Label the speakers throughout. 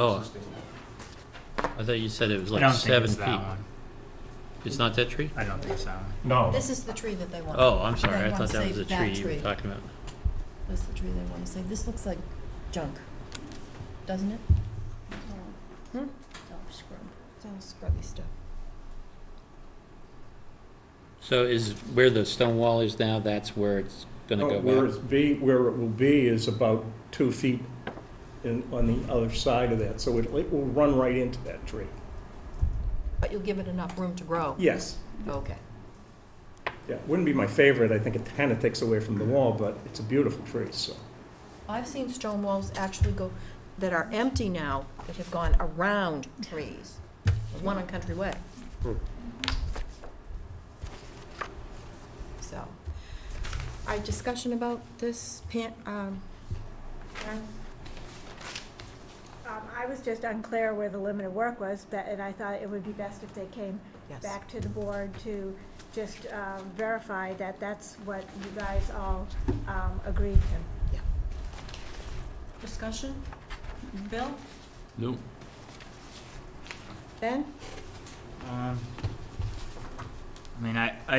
Speaker 1: Oh, I thought you said it was
Speaker 2: I
Speaker 1: like
Speaker 2: don't think
Speaker 1: seven
Speaker 2: it's that
Speaker 1: feet.
Speaker 2: one.
Speaker 1: It's not that tree?
Speaker 2: I don't think it's that one.
Speaker 3: No,
Speaker 4: This is the tree that they want.
Speaker 1: Oh, I'm sorry,
Speaker 4: They
Speaker 1: I
Speaker 4: wanna
Speaker 1: thought that was
Speaker 4: save
Speaker 1: the
Speaker 4: that
Speaker 1: tree you
Speaker 4: tree.
Speaker 1: were talking about.
Speaker 4: That's the tree they want to save. This looks like junk, doesn't it? Hmm? It's all scrubby stuff.
Speaker 1: So is where the stone wall is now, that's where it's gonna
Speaker 3: no,
Speaker 1: go
Speaker 3: Oh, where
Speaker 1: back?
Speaker 3: it's be, where it will be is about two feet in, on the other side of that, so it, it will run right into that tree.
Speaker 4: But you'll give it enough room to grow?
Speaker 3: Yes,
Speaker 4: Okay.
Speaker 3: yeah, wouldn't be my favorite, I think it kinda takes away from the wall, but it's a beautiful tree, so.
Speaker 4: I've seen stone walls actually go, that are empty now, that have gone around trees. There's one on Country Way.
Speaker 3: Hmm.
Speaker 4: So, our discussion about this pan, um, Karen?
Speaker 5: Um, I was just unclear where the limit of work was, but, and I thought it would be best if they came
Speaker 4: Yes.
Speaker 5: back to the board to just, um, verify that that's what you guys all, um, agreed to.
Speaker 4: Discussion? Bill?
Speaker 1: No.
Speaker 4: Ben?
Speaker 2: Um, I mean, I, I,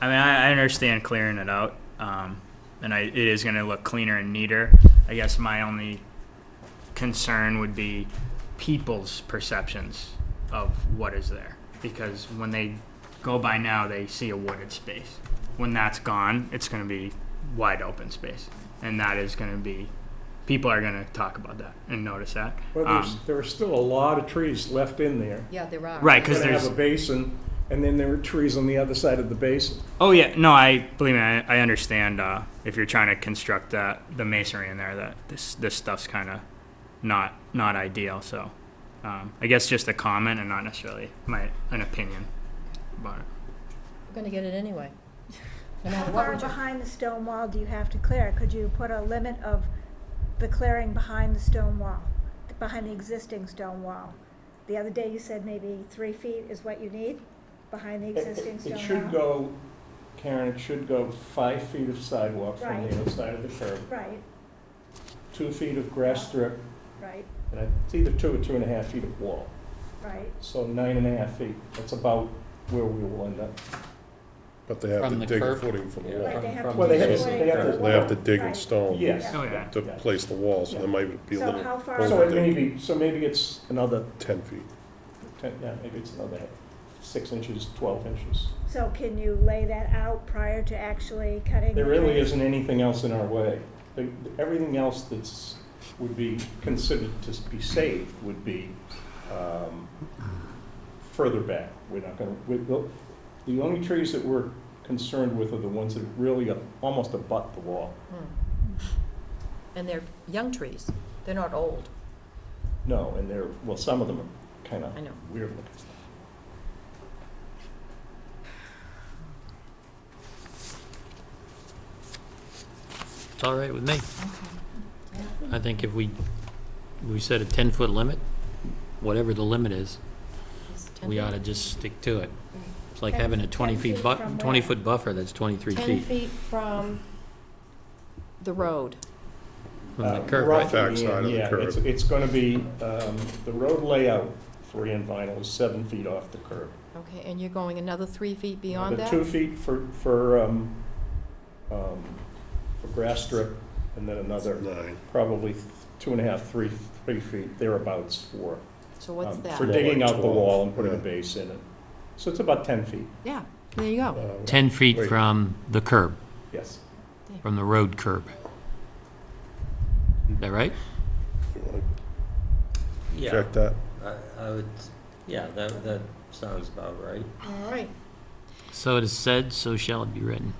Speaker 2: I mean, I, I understand clearing it out, um, and I, it is going to look cleaner and neater. I guess my only concern would be people's perceptions of what is there, because when they go by now, they see a wooded space. When that's gone, it's going to be wide open space, and that is going to be, people are going to talk about that and notice that.
Speaker 3: Well, there's,
Speaker 2: Um,
Speaker 3: there are still a lot of trees left in there.
Speaker 4: Yeah, there are.
Speaker 2: Right, 'cause
Speaker 3: You're gonna have
Speaker 2: there's-
Speaker 3: a basin, and then there are trees on the other side of the basin.
Speaker 2: Oh yeah, no, I believe me. I, I understand uh, if you're trying to construct that the masonry in there, that this this stuff's kind of not not ideal. So um, I guess just a comment and not necessarily my an opinion about it.
Speaker 4: We're gonna get it anyway. No
Speaker 5: How
Speaker 4: matter what
Speaker 5: far
Speaker 4: we do.
Speaker 5: behind the stone wall do you have to clear? Could you put a limit of the clearing behind the stone wall, behind the existing stone wall? The other day you said maybe three feet is what you need behind the
Speaker 3: It-
Speaker 5: existing
Speaker 3: It
Speaker 5: stone
Speaker 3: it
Speaker 5: wall?
Speaker 3: should go, Karen, it should go five feet of sidewalk from
Speaker 5: Right.
Speaker 3: the outside of the curb,
Speaker 5: Right,
Speaker 3: two feet of grass strip,
Speaker 5: right,
Speaker 3: and I- it's either two or two and a half feet of wall.
Speaker 5: right.
Speaker 3: So nine and a half feet, that's about where we will end up.
Speaker 6: But they have
Speaker 1: From
Speaker 6: to
Speaker 1: the
Speaker 6: dig a
Speaker 1: curb?
Speaker 6: footing from the
Speaker 1: Yeah.
Speaker 5: Right,
Speaker 6: wall.
Speaker 5: they have to.
Speaker 3: Well, they have
Speaker 5: put
Speaker 3: to-
Speaker 5: it
Speaker 3: they have
Speaker 5: in
Speaker 3: to-
Speaker 5: the
Speaker 6: They have to
Speaker 5: wall.
Speaker 6: dig in
Speaker 5: Right.
Speaker 6: stone
Speaker 3: Yes.
Speaker 2: Oh yeah.
Speaker 6: to
Speaker 3: Yeah.
Speaker 6: place the wall, so there might be a
Speaker 5: So
Speaker 6: little
Speaker 5: how far-
Speaker 6: over
Speaker 3: So it
Speaker 5: Well,
Speaker 3: may
Speaker 6: there,
Speaker 3: be, so maybe it's another,
Speaker 6: ten feet.
Speaker 3: ten- yeah, maybe it's another six inches, twelve inches.
Speaker 5: So can you lay that out prior to actually cutting?
Speaker 3: There
Speaker 5: the
Speaker 3: really
Speaker 5: trees?
Speaker 3: isn't anything else in our way. The- the- Everything else that's, would be considered to be saved would be um, further back. We're not gonna, we- the the only trees that we're concerned with are the ones that really are almost abut the wall.
Speaker 4: Hmm. And they're young trees. They're not old.
Speaker 3: No, and they're, well, some of them are kind of
Speaker 4: I know.
Speaker 3: weird looking.
Speaker 1: It's all right with me. I think if we, we set a ten-foot limit, whatever the limit is,
Speaker 4: It's 10
Speaker 1: we
Speaker 4: feet.
Speaker 1: ought to just stick to it. It's like
Speaker 5: Ten-
Speaker 1: having a twenty
Speaker 5: 10
Speaker 1: feet
Speaker 5: feet
Speaker 1: bu,
Speaker 5: from where?
Speaker 1: twenty-foot buffer that's twenty-three
Speaker 4: 10
Speaker 1: feet
Speaker 4: feet from the road.
Speaker 1: from the
Speaker 3: Uh,
Speaker 1: curb,
Speaker 3: roughly,
Speaker 1: right?
Speaker 6: Backside of the
Speaker 3: yeah,
Speaker 6: curb.
Speaker 3: it's- It's going to be, um, the road layout for Ian Vinyl is seven feet off the curb.
Speaker 4: Okay, and you're going another three feet beyond
Speaker 3: The
Speaker 4: that?
Speaker 3: two feet for, for, um, um, for grass strip, and then another,
Speaker 6: Nine.
Speaker 3: probably th- two and a half, three, three feet thereabouts for.
Speaker 4: So what's
Speaker 3: um,
Speaker 4: that?
Speaker 3: For digging out the wall and putting a
Speaker 6: Yeah.
Speaker 3: base in it. So it's about ten feet,
Speaker 4: Yeah, there you
Speaker 6: Uh,
Speaker 4: go.
Speaker 1: Ten feet
Speaker 6: Wait.
Speaker 1: from the curb,
Speaker 3: yes.
Speaker 1: from the road curb. Is that right?
Speaker 6: you wanna
Speaker 7: Yeah,
Speaker 6: Check that.
Speaker 7: I, I would, yeah, that, that sounds about right.
Speaker 4: All right.
Speaker 1: So it is said, so shall it be written.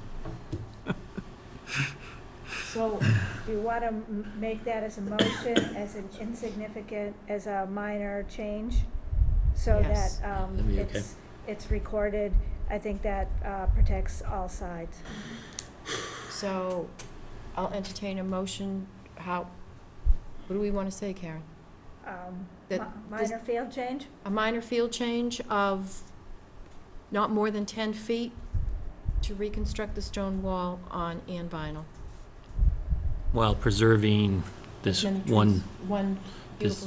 Speaker 5: So do you want to make that as a motion, as an insignificant, as a minor change? So that
Speaker 4: Yes.
Speaker 5: um,
Speaker 1: That'd be okay.
Speaker 5: it's, it's recorded. I think that uh, protects all sides.
Speaker 4: So I'll entertain a motion, how, what do we want to say, Karen?
Speaker 5: Um,
Speaker 4: That
Speaker 5: mi-
Speaker 4: this-
Speaker 5: Minor field change?
Speaker 4: A minor field change of not more than 10 feet to reconstruct the stone wall on Ann Vinyl.
Speaker 1: While preserving this
Speaker 4: As many trees-
Speaker 1: one
Speaker 4: One This-